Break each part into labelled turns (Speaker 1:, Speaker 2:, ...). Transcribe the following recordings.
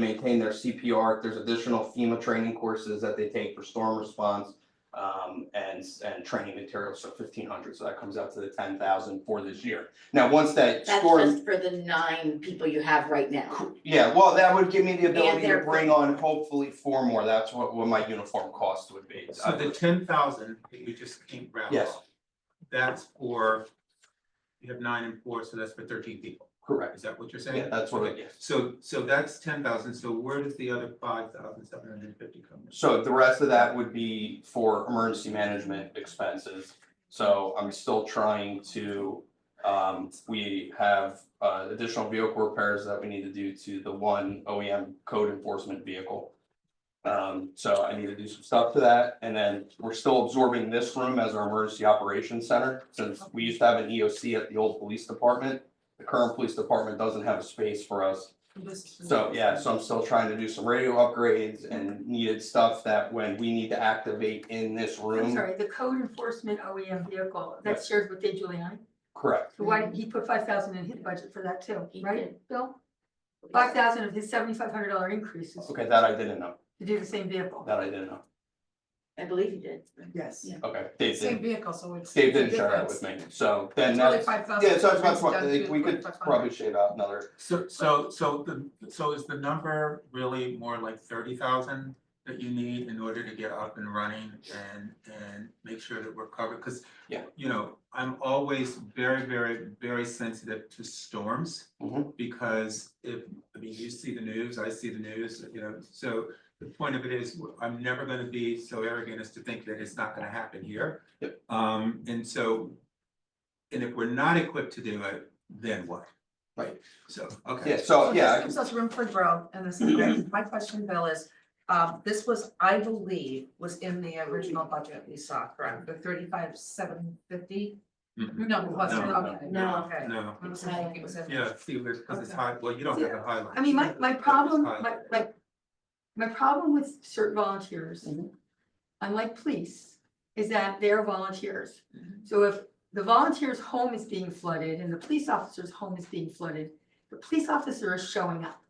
Speaker 1: maintain their CPR. There's additional FEMA training courses that they take for storm response um, and, and training materials, so fifteen hundred, so that comes out to the ten thousand for this year. Now, once that
Speaker 2: That's
Speaker 1: score,
Speaker 2: just for the nine people you have right now.
Speaker 1: yeah, well, that would give me the ability to
Speaker 2: they're-
Speaker 1: bring on hopefully four more, that's what, what my uniform cost would be.
Speaker 3: So the ten thousand that you just came round
Speaker 1: Yes.
Speaker 3: off, that's for, you have nine and four, so that's for thirteen people,
Speaker 1: Correct,
Speaker 3: is that what you're saying?
Speaker 1: yeah, that's what
Speaker 3: Okay.
Speaker 1: it is.
Speaker 3: So, so that's ten thousand, so where does the other five thousand seven hundred and fifty come from?
Speaker 1: So the rest of that would be for emergency management expenses. So I'm still trying to, um, we have, uh, additional vehicle repairs that we need to do to the one OEM code enforcement vehicle. Um, so I need to do some stuff to that, and then we're still absorbing this room as our emergency operations center, since we used to have an EOC at the old police department. The current police department doesn't have a space for us, so, yeah, so I'm still trying to do some radio upgrades and needed stuff that when we need to activate in this
Speaker 4: I'm
Speaker 1: room.
Speaker 4: sorry, the code enforcement OEM vehicle, that's shared with Dave Giuliani.
Speaker 1: Correct,
Speaker 4: So why, didn't he put five thousand in his budget for that too,
Speaker 2: He
Speaker 4: right, Bill? Five thousand of his seventy-five hundred dollar increases
Speaker 1: okay, that I didn't know,
Speaker 4: to do the same vehicle.
Speaker 1: that I didn't know,
Speaker 2: I believe you did.
Speaker 5: Yes.
Speaker 1: okay, Dave
Speaker 5: Same
Speaker 1: didn't,
Speaker 5: vehicle, so it's.
Speaker 1: Dave didn't share that with me, so then that's, yeah, so it's about, twen- we could probably shave out another,
Speaker 3: So, so, so the, so is the number really more like thirty thousand that you need in order to get up and running and, and make sure that we're covered? Cause
Speaker 1: Yeah.
Speaker 3: you know, I'm always very, very, very sensitive to storms.
Speaker 1: Mhm.
Speaker 3: Because if, I mean, you see the news, I see the news, you know, so the point of it is, I'm never gonna be so arrogant as to think that it's not gonna happen here.
Speaker 1: Yep.
Speaker 3: Um, and so, and if we're not equipped to do it, then what?
Speaker 1: Right.
Speaker 3: So, okay.
Speaker 1: yeah, so, oh, yeah, I
Speaker 5: This
Speaker 1: can-
Speaker 5: gives us room for growth, and this is great. My question, Bill, is, um, this was, I believe, was in the original budget we saw, correct? The thirty-five, seven fifty?
Speaker 3: Mhm.
Speaker 5: No, it wasn't,
Speaker 3: No, no,
Speaker 5: okay.
Speaker 2: no.
Speaker 5: Okay.
Speaker 3: No,
Speaker 5: I was thinking it was in.
Speaker 3: yeah, see, because it's high, well, you don't have a highlight.
Speaker 4: I mean, my, my problem, my, my, my problem with certain volunteers,
Speaker 1: Mhm.
Speaker 4: unlike police, is that they're volunteers.
Speaker 3: Mhm.
Speaker 4: So if the volunteer's home is being flooded and the police officer's home is being flooded, the police officer is showing up.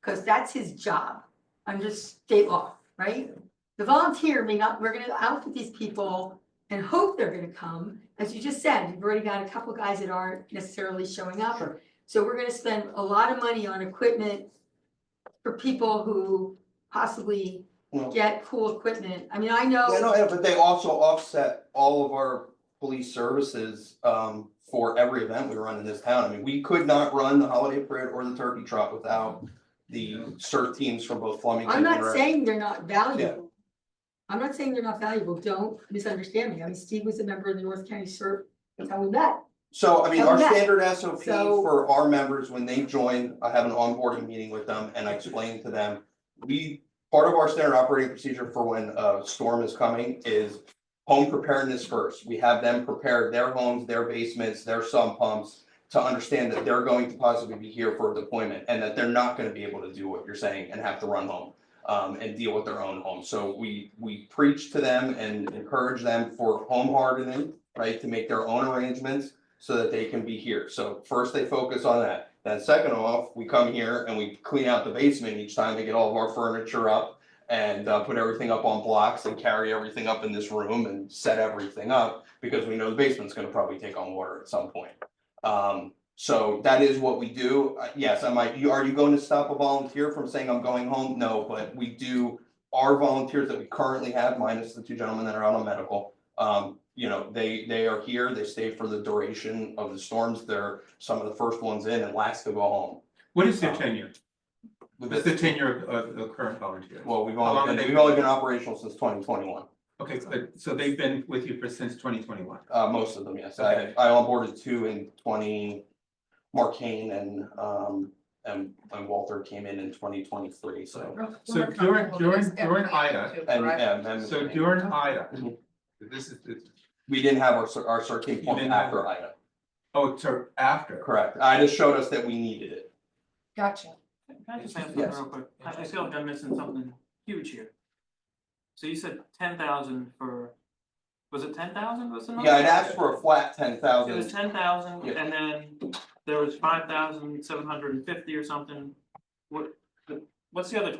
Speaker 4: Cause that's his job under state law, right? The volunteer may not, we're gonna outfit these people and hope they're gonna come. As you just said, you've already got a couple guys that aren't necessarily showing up.
Speaker 1: Sure.
Speaker 4: So we're gonna spend a lot of money on equipment for people who possibly
Speaker 1: Well-
Speaker 4: get cool equipment. I mean, I
Speaker 1: Yeah,
Speaker 4: know,
Speaker 1: no, yeah, but they also offset all of our police services, um, for every event we run in this town. I mean, we could not run the holiday parade or the turkey trot without the cert teams from both Flemington
Speaker 4: I'm
Speaker 1: and.
Speaker 4: not
Speaker 1: Red-
Speaker 4: saying they're not valuable. I'm not saying they're not valuable, don't misunderstand me. I mean, Steve was a member of the North County CERT, that's how we met.
Speaker 1: So, I mean, our
Speaker 4: Come back.
Speaker 1: standard SOP
Speaker 4: So-
Speaker 1: for our members, when they join, I have an onboarding meeting with them and I explain to them. We, part of our standard operating procedure for when a storm is coming is home preparedness first. We have them prepare their homes, their basements, their sump pumps to understand that they're going to possibly be here for a deployment and that they're not gonna be able to do what you're saying and have to run home um, and deal with their own home. So we, we preach to them and encourage them for home hardening, right, to make their own arrangements so that they can be here. So first they focus on that. Then second off, we come here and we clean out the basement each time to get all of our furniture up and uh, put everything up on blocks and carry everything up in this room and set everything up because we know the basement's gonna probably take on water at some point. Um, so that is what we do. Uh, Yes, I might, you, are you going to stop a volunteer from saying I'm going home? No, but we do, our volunteers that we currently have, minus the two gentlemen that are out on medical. Um, you know, they, they are here, they stay for the duration of the storms. They're some of the first ones in and last to go home.
Speaker 3: What is their tenure?
Speaker 1: We've
Speaker 3: What's the
Speaker 1: been-
Speaker 3: tenure of, of the current volunteer?
Speaker 1: Well, we've
Speaker 3: How long
Speaker 1: only, been-
Speaker 3: have they
Speaker 1: we've only been operational since twenty twenty-one,
Speaker 3: Okay, but, so they've been with you for since twenty twenty-one.
Speaker 1: uh, most of them, yes. I,
Speaker 3: Okay.
Speaker 1: I onboarded two in twenty, Mark Kane and, um, and, and Walter came in in twenty twenty-three, so.
Speaker 3: So during- during- during Ida,
Speaker 1: And, and, and.
Speaker 3: So during Ida,
Speaker 1: Mhm.
Speaker 3: this is, this-
Speaker 1: We didn't have our, cer- our certain point
Speaker 3: didn't have-
Speaker 1: after Ida,
Speaker 3: oh, so after.
Speaker 1: correct, Ida showed us that we needed it.
Speaker 5: Gotcha.
Speaker 6: Can I just ask
Speaker 1: Yes.
Speaker 6: something real quick? I I feel like I'm missing something huge here. So you said ten thousand for, was it ten thousand was the number?
Speaker 1: Yeah, I'd asked for a flat ten
Speaker 6: It was
Speaker 1: thousand,
Speaker 6: ten thousand
Speaker 1: Yeah.
Speaker 6: and then there was five thousand seven hundred and fifty or something. What, what's the other